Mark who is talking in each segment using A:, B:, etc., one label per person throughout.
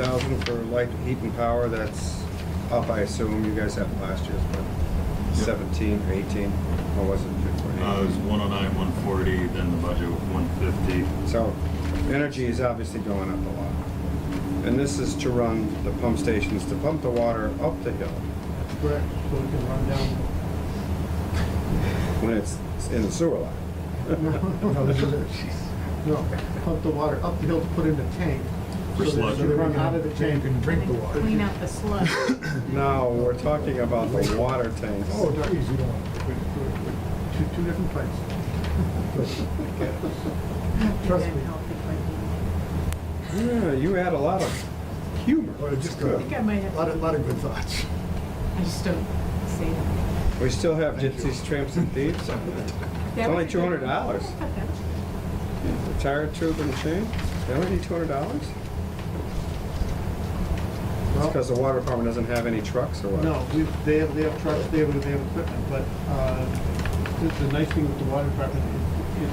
A: thousand for light, heat and power, that's up, I assume, you guys have last year's, but
B: Yep.
A: seventeen, eighteen, or was it fifteen?
B: Uh, it was 109, 140, then the budget was 150.
A: So, energy is obviously going up a lot. And this is to run the pump stations, to pump the water up the hill
C: Correct, so we can run down.
A: when it's in the sewer line.
C: No, this is it. No, pump the water up the hill to put in the tank.
B: For
C: so that-
B: sludge.
C: So they run out of the tank and drink the water.
D: Clean out the sludge.
A: No, we're talking about the water tanks.
C: Oh, geez, you don't. Two, two different places. Trust me.
A: Yeah, you had a lot of humor.
C: Well, just
D: I
C: a
D: think I might have,
C: lot of, lot of good thoughts.
D: I just don't say that.
A: We still have
C: Thank you.
A: gypsies, tramps, and thieves on that.
D: That
A: only
D: was a good one.
A: $200. The Tire tube and chain, that would be two hundred dollars? It's
C: Well,
A: because the water department doesn't have any trucks or what?
C: No, we, they have, they have trucks, they have, they have equipment, but, uh, the, the nice thing with the water department is, is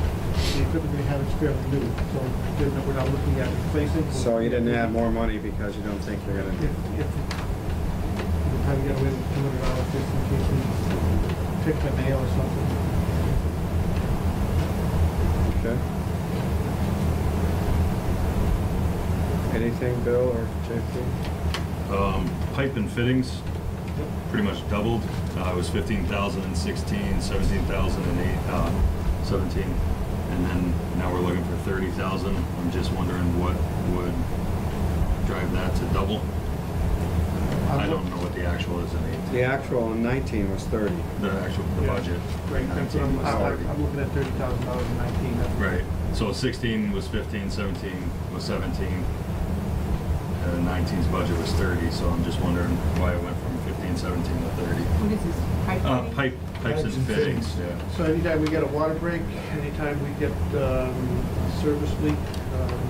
C: the equipment they have is fairly new, so they're not- we're not looking at replacing.
A: So you didn't add more money because you don't think you're
C: If,
A: gonna,
C: if, we probably get away with two hundred dollars just in case we pick the nail or something.
A: okay? Anything, Bill or JP?
B: Um, Pipe and fittings pretty much doubled. Uh, It was 15,000 in 16, 17,000 in eight- uh, 17, and then now we're looking for 30,000. I'm just wondering what would drive that to double? I don't know what the actual is in 18.
A: The actual in nineteen was thirty.
B: The actual, the
C: Yeah.
B: budget.
C: Right, that's
B: 19
C: what I'm,
B: was
C: I'm,
B: 30.
C: I'm looking at thirty thousand dollars in nineteen, that's.
B: Right, so 16 was 15, 17 was 17, and 19's budget was 30, so I'm just wondering why it went from 15, 17 to 30.
D: What is this? pipe
B: Uh,
D: fitting?
B: pipe, pipes and fittings, yeah.
C: So anytime we get a water break, anytime we get, um, a service leak, um,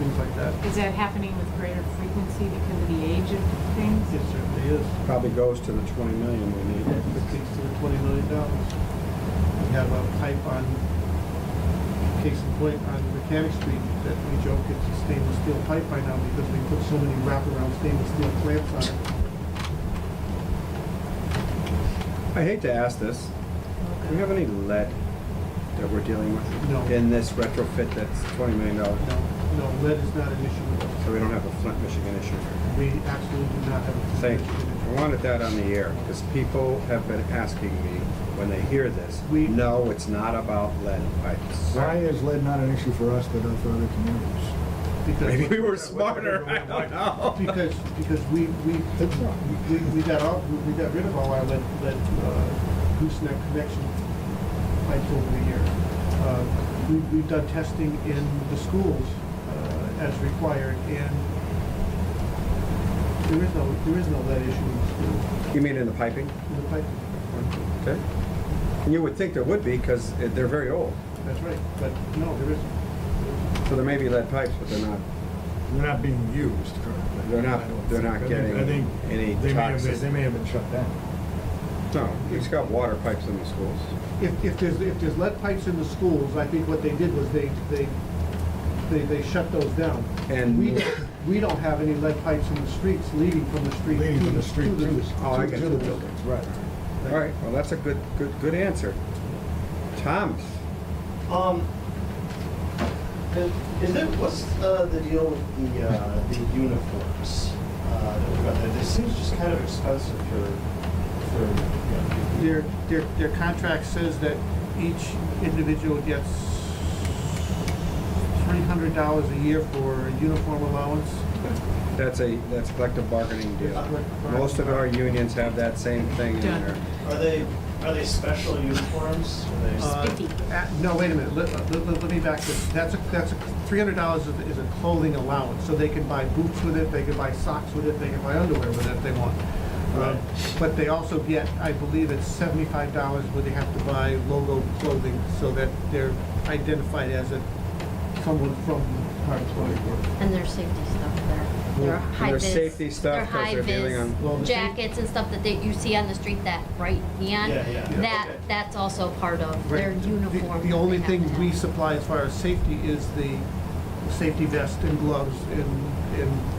C: things like that,
D: Is that happening with greater frequency because of the age of
C: it
D: things?
C: certainly is.
A: Probably goes to the twenty million we need.
C: It takes to the twenty million dollars. We have a pipe on, case in point, on Mechanic Street that we joke it's a stainless steel pipe by now because we put so many wraparound stainless steel clamps on it.
A: I hate to ask this, do we have any lead that we're dealing with?
C: No.
A: In this retrofit that's twenty million dollars,
C: No, no, lead is not an issue with us.
A: so we don't have a Flint, Michigan issue.
C: We absolutely do not have. a-
A: Thank you. I wanted that on the air because people have been asking me when they hear this.
C: We-
A: know it's not about lead pipes.
E: Why is lead not an issue for us but not for other communities?
C: Because-
A: Maybe we were smarter. I don't know.
C: Because, because we, we,
E: It's not.
C: we, we got all, we got rid of all our lead, lead, uh, gooseneck connection pipes over the years. Uh, we, we've done testing in the schools, uh, as required, and there is no, there is no lead issue in the school,
A: You mean in the piping?
C: in the pipe.
A: Okay. And you would think there would be because they're very old.
C: That's right, but no, there isn't.
A: So there may be lead pipes, but they're not.
E: They're not being used currently.
A: They're not-
E: I don't
A: they're not
E: think. I think-
A: getting
E: I think
A: any
E: they may have-
A: toxic-
E: They may have been shut down.
A: No, it's got water pipes in the schools.
C: If, if there's, if there's lead pipes in the schools, I think what they did was they, they, they, they shut those down.
A: And-
C: We don't, we don't have any lead pipes in the streets leading from the street.
E: Leading
C: to
E: from the street to the,
A: Oh, I
E: to
A: get
E: to
A: you.
E: the buildings, right.
A: All right. Well, that's a good, good, good answer. Thomas,
F: Um, and is there, what's uh, the deal with the, uh, the uniforms? uh, that we've got there? They seem just kind of expensive for, for, you know,
C: Their, their, their contract says that each individual gets three hundred dollars a year for uniform allowance.
A: that's a that's a collective bargaining deal.
C: Collective
A: Most of our unions have that same thing in
D: Done.
A: there.
F: are they, are they special uniforms? Are they-
C: Uh,
D: Spiffy.
C: uh, No, wait a minute, let, let- let- let me back this, that's a, that's a, three hundred dollars is is a clothing allowance, so they can buy boots with it, they can buy socks with it, they can buy underwear with it if they want. Uh,
F: Right.
C: But they also get, I believe it's seventy-five dollars where they have to buy logo clothing, so that they're identified as a, someone from our employee group.
G: And their safety stuff there.
A: Well,
G: Their
A: and
G: high
A: their
G: vis.
A: safety stuff,
G: their
A: 'cause they're
G: high vis
A: dealing on-
C: Well, the safe-
G: Jackets and stuff that they, you see on the street, that bright
F: Yeah,
G: neon.
F: yeah, yeah,
G: That,
F: okay.
G: that's also part of their
C: Right. The-
G: uniform.
C: The
G: that
C: only
G: they have to
C: thing we
G: have.
C: supply as far as safety is the safety vest and gloves and, and